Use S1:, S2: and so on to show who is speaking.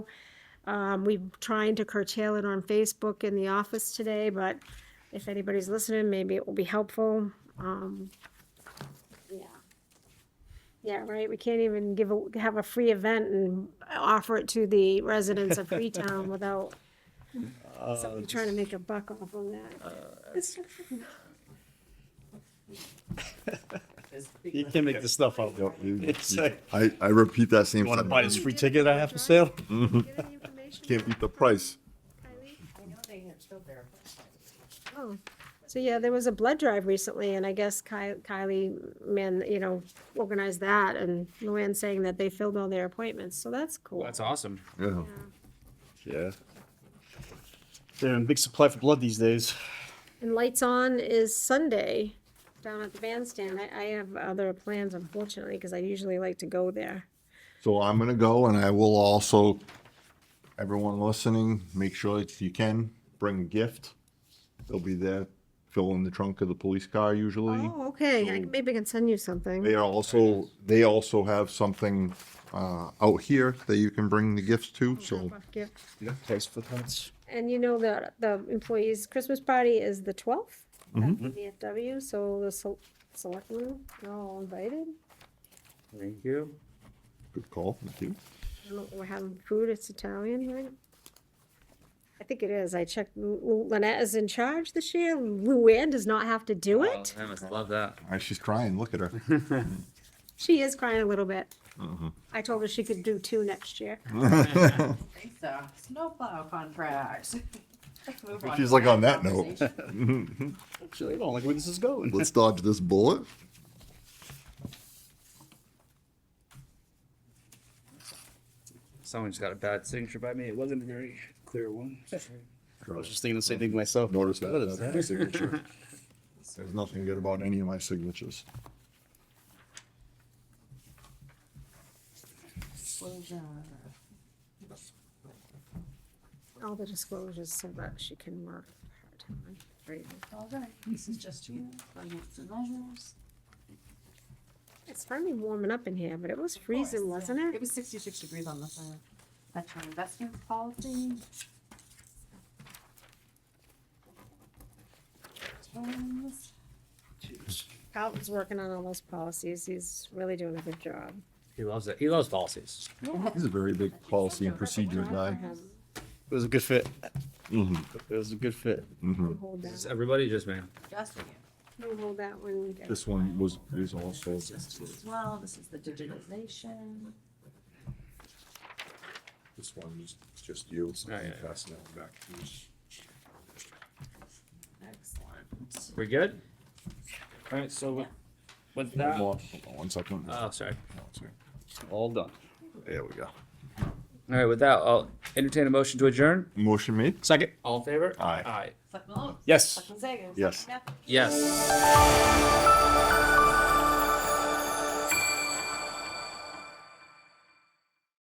S1: Um, we're trying to curtail it on Facebook in the office today, but if anybody's listening, maybe it will be helpful. Um, yeah. Yeah, right, we can't even give, a have a free event and offer it to the residents of Freetown without somebody trying to make a buck off on that.
S2: You can't make this stuff up. It's like,
S3: I, I repeat that same
S2: You want to
S3: thing.
S2: buy this free ticket I have for sale?
S3: Can't beat the price.
S1: Oh, So, yeah, there was a blood drive recently, and I guess Ki- Kylie, man, you know, organized that, and Luann saying that they filled all their appointments, so that's cool.
S4: That's awesome.
S3: Yeah.
S1: Yeah.
S3: Yeah.
S2: They're in big supply for blood these days.
S1: And Lights On is Sunday down at the bandstand. I, I have other plans unfortunately, because I usually like to go there.
S3: So I'm gonna go and I will also, everyone listening, make sure if you can, bring a gift. They'll be there, fill in the trunk of the police car usually.
S1: Oh, okay. I- Maybe I can send you something.
S3: They are also, they also have something, uh, out here that you can bring the gifts to,
S2: Oh,
S3: so.
S1: Yeah.
S2: Place for plants.
S1: And you know that the employees' Christmas party is the twelfth at the VFW, so the sel- selectmen are all invited.
S4: Thank you.
S3: Good call, thank you.
S1: I don't know, We're having food. It's Italian, right? I think it is. I checked. Lu- Lu- Lynette is in charge this year. Luann does not have to do it.
S4: I must love that.
S3: All right, she's crying, look at her.
S1: She is crying a little bit. I told her she could do two next year.
S5: think so. Snowplow contract. Let's move on
S3: She's
S5: to
S3: like,
S5: that
S3: "On that note."
S5: conversation.
S2: Actually, I don't like where this is going.
S3: Let's dodge this bullet.
S4: Someone's got a bad signature by me. It wasn't a very clear one.
S2: I was just thinking the same thing myself.
S3: Notice that.
S2: What is
S3: that's my signature. There's nothing good about any of my signatures.
S5: Disclosure.
S1: All the disclosures so that she can work part-time. Very good.
S5: All right, this is just you, finance and measures.
S1: It's finally warming up in here, but it was freezing, wasn't
S5: It
S1: it?
S5: was sixty-six degrees on the side. That's your investment policy. Terms.
S1: Carlton's working on all those policies. He's really doing a good job.
S4: He loves it. He loves policies.
S3: He's a very big policy and procedure guy.
S2: It was a good fit.
S3: Mhm.
S2: It was a good fit.
S3: Mm-hmm.
S1: No hold
S4: Is
S1: that,
S4: everybody just man?
S5: Just you.
S1: no hold that one.
S3: This one was, is also,
S5: This is just as well, this is the digitization.
S3: this one is just you.
S4: Yeah, yeah, yeah.
S3: Passing it back.
S5: Excellent.
S4: We're good? All right, so with- with
S3: One
S4: that,
S3: more. Hold on One second.
S4: oh, sorry.
S2: All done.
S3: There we go.
S4: All right, with that, I'll entertain a motion to adjourn.
S3: Motion made?
S2: Second.
S4: All in favor?
S3: Aye.
S4: Aye.
S5: Selectman Lopes?
S2: Yes.
S5: Selectman Zager?
S3: Yes.
S5: Selectman Matthews?
S4: Yes.